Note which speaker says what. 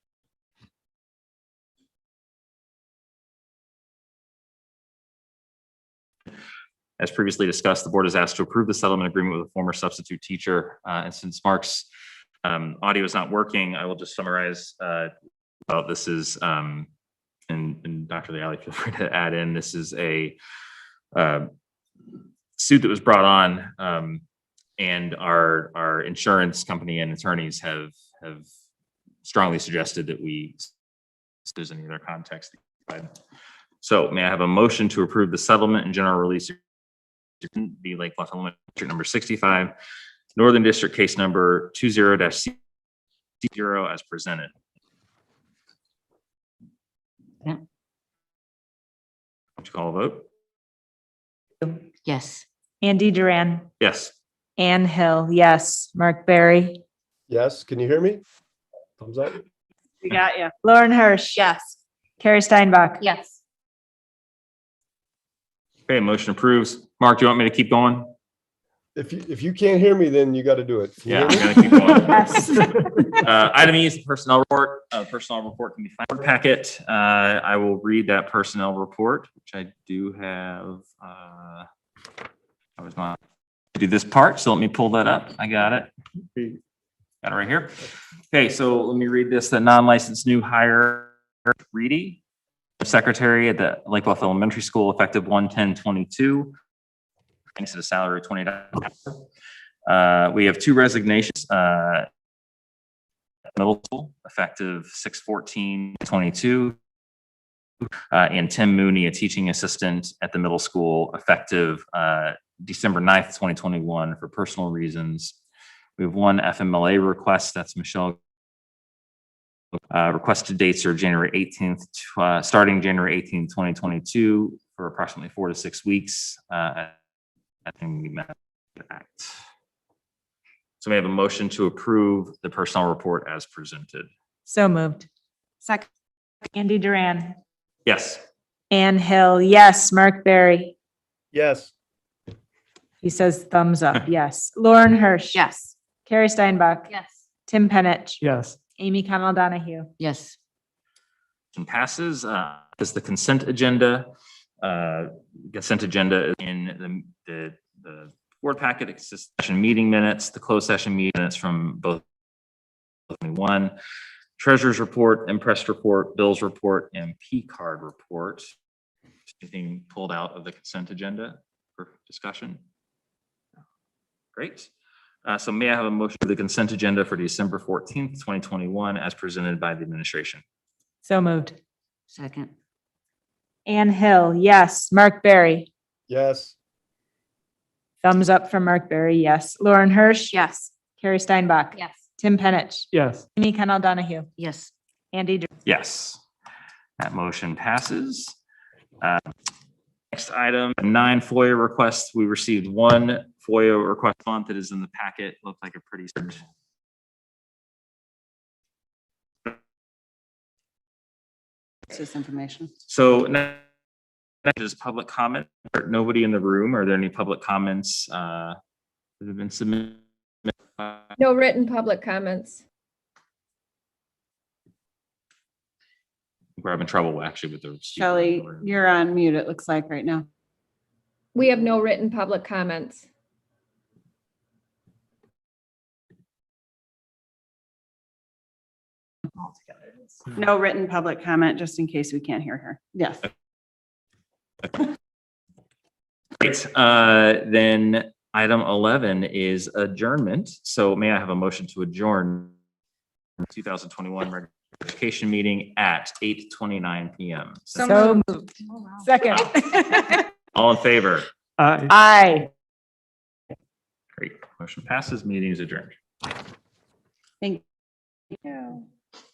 Speaker 1: As previously discussed, the board is asked to approve the settlement agreement with a former substitute teacher. Uh, And since Mark's um, audio is not working, I will just summarize. uh, Well, this is, um, and and Dr. Lealy, feel free to add in, this is a uh, suit that was brought on um, and our, our insurance company and attorneys have, have strongly suggested that we, if there's any other context. So may I have a motion to approve the settlement and general release agreement, the Lake Bluff Elementary District number sixty-five, Northern District case number two zero dash C zero as presented.
Speaker 2: Yeah.
Speaker 1: Would you call a vote?
Speaker 2: Yes.
Speaker 3: Andy Duran,
Speaker 1: Yes.
Speaker 3: Anne Hill, yes. Mark Barry.
Speaker 4: Yes, can you hear me? Thumbs up.
Speaker 3: We got you. Lauren Hirsch. Yes. Carrie Steinbach.
Speaker 2: Yes.
Speaker 1: Okay, motion approves. Mark, do you want me to keep going?
Speaker 4: If you, if you can't hear me, then you got to do it. Can you
Speaker 1: Yeah,
Speaker 4: hear
Speaker 1: I'm gonna
Speaker 4: me?
Speaker 1: keep going.
Speaker 3: Yes.
Speaker 1: Uh, item E is the personnel report. Uh, personnel report can be found in the packet. Uh, I will read that personnel report, which I do have, uh, I was not, do this part, so let me pull that up. I got it. Got it right here. Okay, so let me read this, the non-licensed new hire, Reedy, secretary at the Lake Bluff Elementary School, effective one ten twenty-two. Thanks at a salary of twenty dollars. Uh, we have two resignations, uh, middle school, effective 6/14/22, Uh, and Tim Mooney, a teaching assistant at the middle school, effective, uh, December 9th, twenty twenty-one for personal reasons. We have one FMLA request, that's Michelle. Uh, requested dates are January eighteenth, uh, starting January eighteenth, twenty twenty-two for approximately four to six weeks. Uh, I think we met that. So we have a motion to approve the personnel report as presented.
Speaker 3: So moved.
Speaker 2: Second.
Speaker 3: Andy Duran,
Speaker 1: Yes.
Speaker 3: Anne Hill, yes. Mark Barry.
Speaker 4: Yes,
Speaker 3: He says thumbs up, yes. Lauren Hirsch.
Speaker 2: Yes.
Speaker 3: Carrie Steinbach.
Speaker 2: Yes.
Speaker 3: Tim Penich.
Speaker 5: yes,
Speaker 3: Amy Connell Donahue.
Speaker 2: Yes.
Speaker 1: Motion passes. Uh, is the consent agenda. Uh, consent agenda is in the, the, the board packet, it's just session meeting minutes, the closed session meeting minutes from both one, treasurer's report, impress report, bills report, and P card report. Anything pulled out of the consent agenda for discussion? Great. Uh, so may I have a motion for the consent agenda for December fourteenth, twenty twenty-one, as presented by the administration?
Speaker 3: So moved.
Speaker 2: Second.
Speaker 3: Anne Hill, yes. Mark Barry.
Speaker 4: yes,
Speaker 3: Thumbs up from Mark Barry, yes. Lauren Hirsch.
Speaker 2: Yes.
Speaker 3: Carrie Steinbach.
Speaker 2: Yes.
Speaker 3: Tim Penich.
Speaker 5: yes,
Speaker 3: Amy Connell Donahue.
Speaker 2: Yes.
Speaker 3: Andy Duran.
Speaker 1: Yes. That motion passes. Uh, Next item, nine FOIA requests. We received one FOIA request font that is in the packet. Looked like a pretty.
Speaker 2: It's This information.
Speaker 1: So now next is public comment. Nobody in the room. Are there any public comments uh, that have been submitted? Uh,
Speaker 6: No written public comments.
Speaker 1: We're having trouble actually with the. speaker.
Speaker 7: Shelley, you're on mute, it looks like right now.
Speaker 6: We have no written public comments.
Speaker 7: No written public comment, just in case we can't hear her. Yes.
Speaker 1: Great. Uh, Then item 11 is adjournment. So may I have a motion to adjourn 2021 regular education meeting at 8:29 PM?
Speaker 3: So moved. Oh, Second.
Speaker 1: All in favor?
Speaker 5: I.
Speaker 3: Aye.
Speaker 1: Great. Motion passes. Meeting is adjourned.
Speaker 7: Yeah.